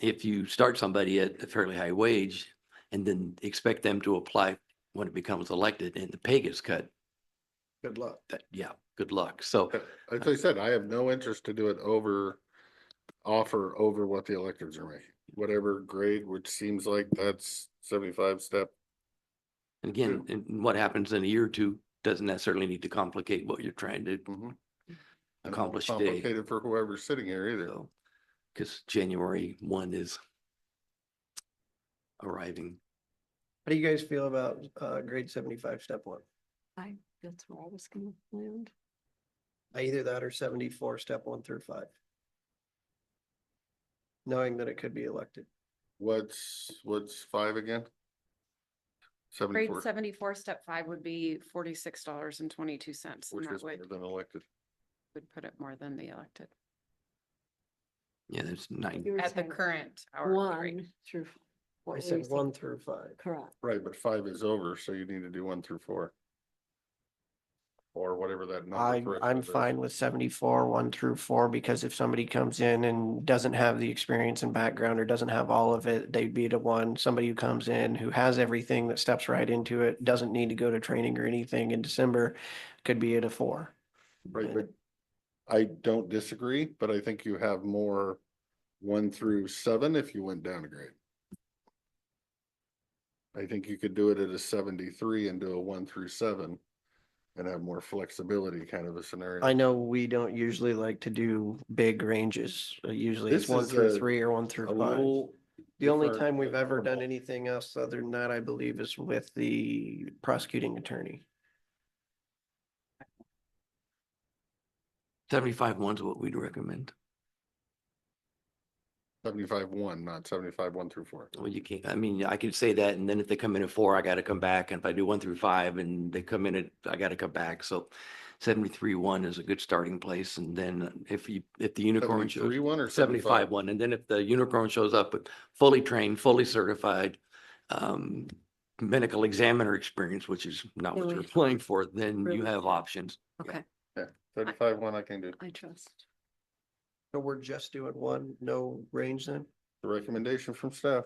if you start somebody at a fairly high wage and then expect them to apply when it becomes elected and the pay gets cut, Good luck. that, yeah, good luck. So Uh, As I said, I have no interest to do it over, offer over what the electors are making, whatever grade, which seems like that's seventy-five step. again, and what happens in a year or two doesn't necessarily need to complicate what you're trying to Mhm. And accomplish today. Complicated for whoever's sitting here either. Because January one is arriving. How do you guys feel about uh grade seventy-five, step one? I, that's where I was gonna land. Either that or seventy-four, step one through five? Knowing that it could be elected. What's, what's five again? Grade Seventy-four. seventy-four, step five would be forty-six dollars and twenty-two cents. And Which that is would, more than elected. would put it more than the elected Yeah, there's nine. You were at the saying current hourly rate. One through. f- I what were you said saying? one through five. Correct. Right, but five is over, so you need to do one through four. Or whatever that. number I, threshold I'm is. fine with seventy-four, one through four, because if somebody comes in and doesn't have the experience and background or doesn't have all of it, they'd be the one, somebody who comes in who has everything that steps right into it, doesn't need to go to training or anything in December, could be at a four. Right, but I don't disagree, but I think you have more one through seven if you went down a grade. I think you could do it at a seventy-three and do a one through seven and have more flexibility kind of a I scenario. know we don't usually like to do big ranges. Uh, Usually it's This one is through a- three or one A through five. little The only different time we've ever done animal. anything else other than that, I believe, is with the prosecuting attorney. Seventy-five one's what we'd recommend. Seventy-five one, not seventy-five one through four. Well, you can't, I mean, I could say that, and then if they come in at four, I gotta come back, and if I do one through five and they come in at, I gotta come back, so seventy-three one is a good starting place, and then if you, if the unicorn Seventy-three shows, one or seventy-five seventy-five? one, and then if the unicorn shows up, with fully trained, fully certified, um, medical examiner experience, which is not what you're Really? applying for, then you Really? have options. Okay, Seventy-five one I can do. I trust. So we're just doing one, no range then? The recommendation from staff.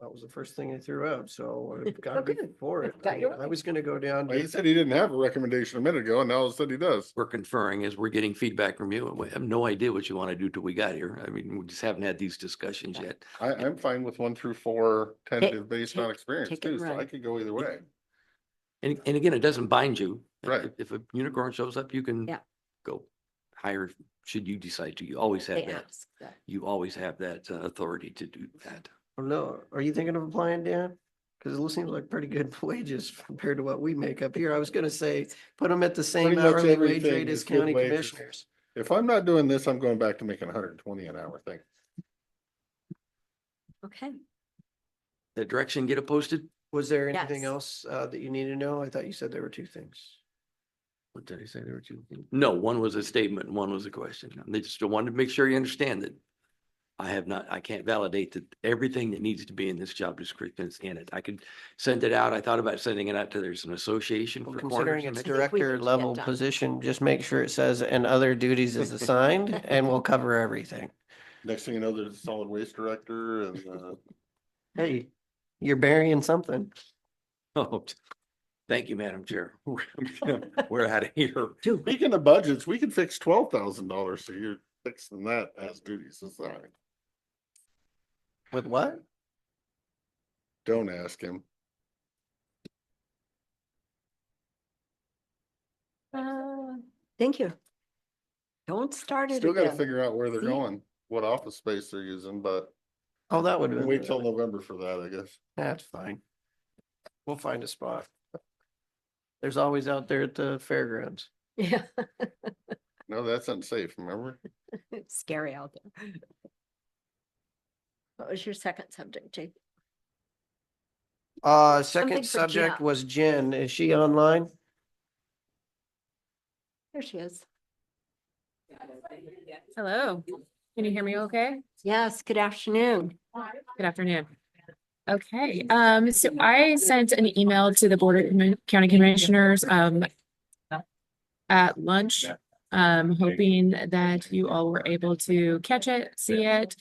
That was the first thing I threw out, so I've got Oh, to be good. for it. I've got I your mean, I way. was gonna go down. Well, He to- said he didn't have a recommendation a minute ago and now all of a sudden he does. we're conferring is we're getting feedback from you. and We have no idea what you want to do till we got here. I mean, we just haven't had these discussions Yeah. yet. I, I'm fine with one through four tentative based on take- experience take it too, so I right. could go either way. And, and again, it doesn't bind you. Right. If- If a unicorn shows up, you can Yeah. go higher, should you decide to. You always They have that. ask that. You always have that uh, authority to do that. Oh, No, are you thinking of applying, Dan? Because it seems like pretty good wages compared to what we make up here. I was gonna say, put them at the same Pretty much hourly wage everything rate as is good county wages. commissioners. If I'm not doing this, I'm going back to making hundred and twenty an hour thing. Okay, The direction, get it posted? Was there anything Yes. else uh that you need to know? I thought you said there were two things. What did I say? There were two. things. No, one was a statement, and one was a question. They just wanted to make sure you understand that I have not, I can't validate that everything that needs to be in this job description is in it. I could send it out. I thought about sending it out to, there's an association Well, for Considering corners. it's and think we could director get level done. position, just make sure it says and other duties is assigned and we'll cover everything. Next thing you know, there's a solid waste director and, uh, Hey, you're burying something. Oh, t- Thank you, Madam Chair. We're out of here. two. speaking of budgets, we can fix twelve thousand dollars, so you're fixing that as duties assigned. With what? Don't ask him. Uh, Thank you. Don't start it Still gotta again. figure out where they're See? going, what office space they're using, but Oh, that would. have we'll been wait the- till November for that, I guess. That's fine. We'll find a spot. There's always out there at the fairgrounds. Yeah, No, that's unsafe, remember? it's scary out there. What was your second subject, Jake? Uh, Something second for subject Jeff. was Jen. Is she online? There she is. Hello, can you hear me okay? Yes, good afternoon. Good afternoon. Okay, um, so I sent an email to the Board of Commi- County Commissioners, um, at lunch, um, hoping that you all were able to catch it, see it,